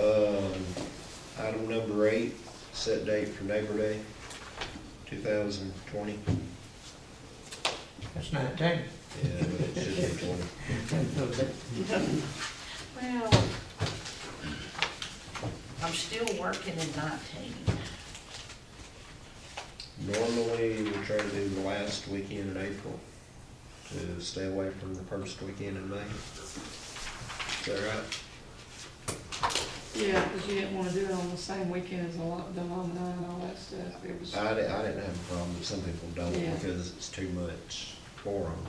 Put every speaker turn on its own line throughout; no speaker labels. Um, Item number eight, set date for Neighbor Day, two thousand twenty.
That's nineteen.
Yeah, it should be twenty.
Well, I'm still working in nineteen.
Normally, we try to do the last weekend in April to stay away from the first weekend in May. Is that right?
Yeah, because you didn't want to do it on the same weekend as the alum- the alumni and all that stuff. It was,
I didn't, I didn't have a problem, but some people don't
Yeah.
because it's too much for them.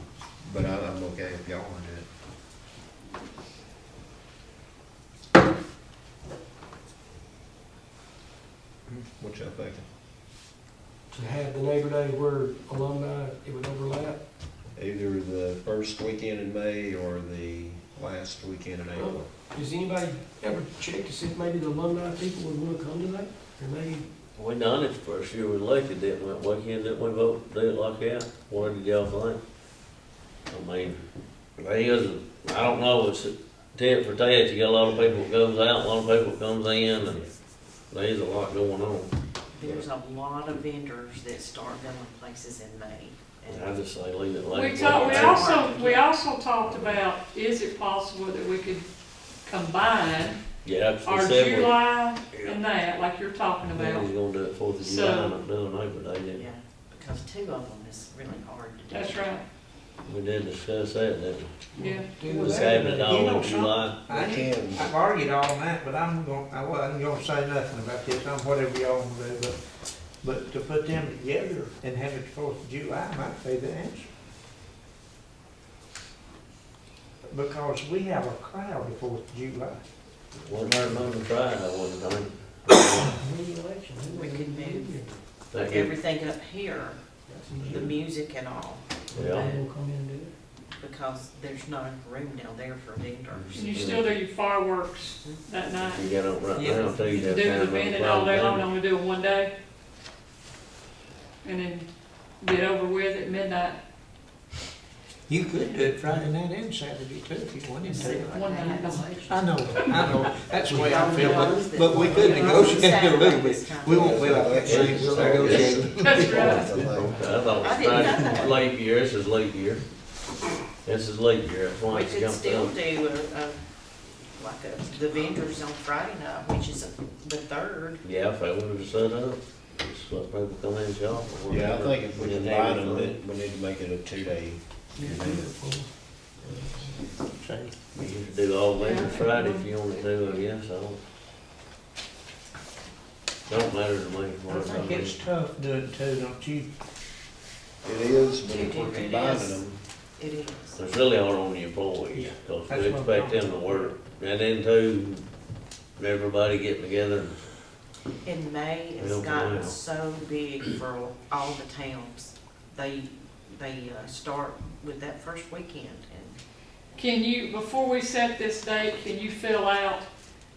But I- I'm okay if y'all want to do it. What y'all thinking?
To have the Labor Day where alumni, it would overlap,
Either the first weekend in May or the last weekend in April.
does anybody ever check to see if maybe the alumni people would wanna come to that? Or maybe,
We done it first year we elected, didn't we? Why can't we vote, do it like that? What did y'all think? I mean, they is, I don't know, it's tit for tat. You got a lot of people goes out, a lot of people comes in, and there's a lot going on.
There's a lot of vendors that start going places in May.
And I
And
just say leave it like
we
that.
talked, we also, we also talked about, is it possible that we could combine
Yeah, that's
our
what said we-
July and that, like you're talking
we
about?
was gonna do it Fourth of
So-
July, and not doing Labor Day, didn't
Yeah, because two of them is really hard to do.
That's right,
we? We did discuss that, didn't
yeah.
do
we?
Well,
Just
that?
that-
having it all
you know
in July.
I
We
ain't,
can.
I've argued all night, but I'm gonna, I wasn't gonna say nothing about this, I'm whatever y'all wanna do, but, but to put them together and have it Fourth of July might be the answer. Because we have a crowd the Fourth of July.
Wasn't hurt none to try, I wouldn't think.
Re-election, who
We
would
could
be
move.
here?
Like
That get-
everything up here, the
That's-
music and all,
Yeah,
They will come in and do it.
because there's not enough room down there for vendors.
And you still do your fireworks that
you
night,
got up right
Yeah.
now, too, you
do
have
the
time. to
event and
run
all day long,
down.
only do it one day. And then get over with at midnight.
You could do it Friday night and Saturday too, if you wanted to.
One night,
I know, I know, that's the way I
Only
feel,
those
but,
that-
but we could
only
negotiate a little
Saturday
bit.
this time.
We won't be like that, so we'll negotiate.
That's right.
I thought
I
it
didn't know
was
that.
Friday, late year, this is late year. This is late year, that's why
We
it's
could
jumped
still
up.
do a, a, like a, the vendors on Friday night, which is the third.
Yeah, if I would've set up, just let people come in and shop or
Yeah, I
whatever.
think if we
Didn't
combine
have it
them,
for-
that we need to make it a two-day event.
Say,
You can do all winter Friday if you want to do, I guess, I don't. Don't matter to me,
I
what I
think it's tough doing two, don't you?
It is, but if
Two
we're
different
combining
days.
them,
It is.
It's really hard on the employees, cause
That's
we
what I'm
expect them to work, and then too, everybody getting together,
In May, it's
Well,
gotten
wow.
so big for all the towns. They, they uh, start with that first weekend and
Can you, before we set this date, can you fill out,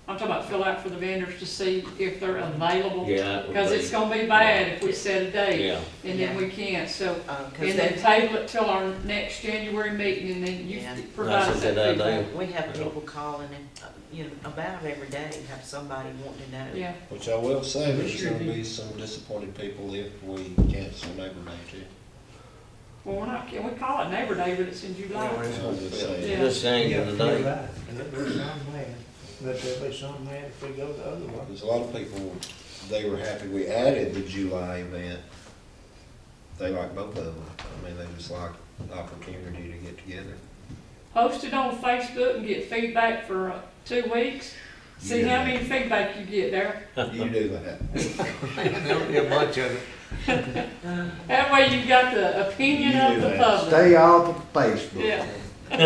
I'm talking about fill out for the vendors to see if they're available?
yeah. it would
Because
be-
it's gonna be bad if we set a date
Yeah,
and then we can't, so,
uh 'cause
and then
they,
table it till our next January meeting and then you
Yeah.
provide us
That's a
that
good idea.
feedback.
we have people calling and, uh, you know, about every day, have somebody wanting to know.
Yeah,
which I will say,
We
there's
sure
gonna
do.
be some disappointed people if we cancel Labor Day
well, we're not, can we call it Neighbor Day, but it's in July?
too. So I'm just saying,
Yeah.
just changing
Yeah,
the
you're
date.
right, and there'll be some mad, but there'll be some mad if we go the other way.
there's a lot of people, they were happy we added the July event. They like both of them. I mean, they just like the opportunity to get together.
Post it on Facebook and get feedback for uh, two weeks. See
Yeah.
how many feedback you get there.
You do that.
There'll be a bunch of it.
That way you've got the opinion
You
of
do
the
that.
public.
Stay off the Facebook.
Yeah.
Yeah,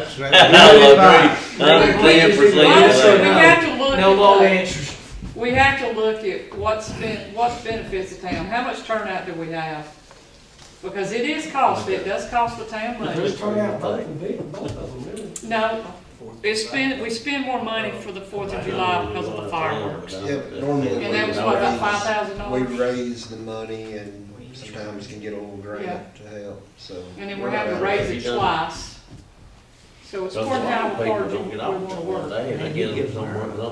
that's right.
I'm playing
Well,
for Cleveland.
We have to look.
No
at
long
the-
answers.
We have to look at what's been, what benefits the town, how much turnout do we have? Because it is cost, it does cost the town money.
Let's turn out both of them, both of them, really.
No, it's spend, we spend more money for the Fourth of July because of the fireworks.
Yeah, normally
And that was what, about five thousand
We
dollars?
raise the money and sometimes can get a little grant to help, so.
And then we're having to raise it twice. So it's
Because a
four
lot of
thousand
people
dollars we
don't get off
want to
till
work.
one day, and
Man,
they
you
get
get
them somewhere
fired.
else.